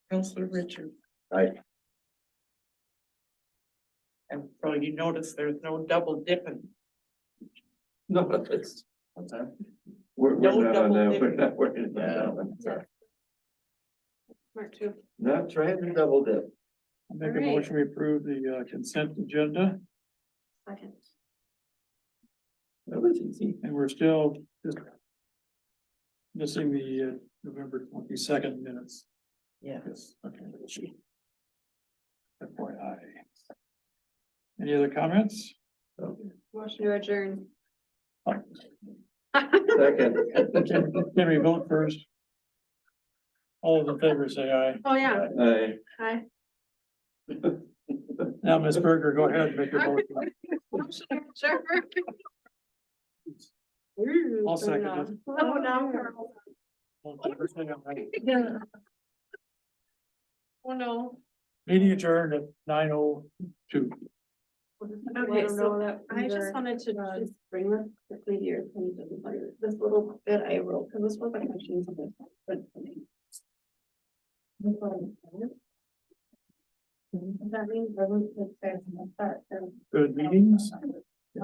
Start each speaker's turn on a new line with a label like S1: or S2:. S1: Counselor Richard.
S2: Aye.
S1: And so you notice there's no double dipping.
S2: No, that's.
S1: What's that?
S2: We're, we're
S1: No
S2: not on
S1: double
S2: that, we're
S1: dipping.
S2: not working on that one.
S3: Mark two.
S2: Not trying to double dip.
S4: Make a
S3: Alright.
S4: motion, we approve the uh, consent agenda,
S3: Second.
S2: That was easy.
S4: and we're still just missing the uh, November twenty-second minutes.
S1: Yeah.
S4: Yes, okay. FYI. Any other comments?
S2: Oh,
S3: Motion to adjourn.
S2: Second.
S4: Can can we vote first? All those in favor say aye.
S3: Oh, yeah.
S2: Aye.
S3: Hi.
S4: Now, Ms. Berger, go ahead and make your motion.
S3: Motion to adjourn.
S4: I'll second it.
S3: Oh, no.
S4: All in favor, say aye.
S3: Oh, no.
S4: Meeting adjourned at nine oh two.
S3: Okay, so I just wanted to just bring this quickly to your attention, like, this little bit I wrote, because this was a question. to this, but for me. This one. That means I was the same, that, and.
S4: Good meetings.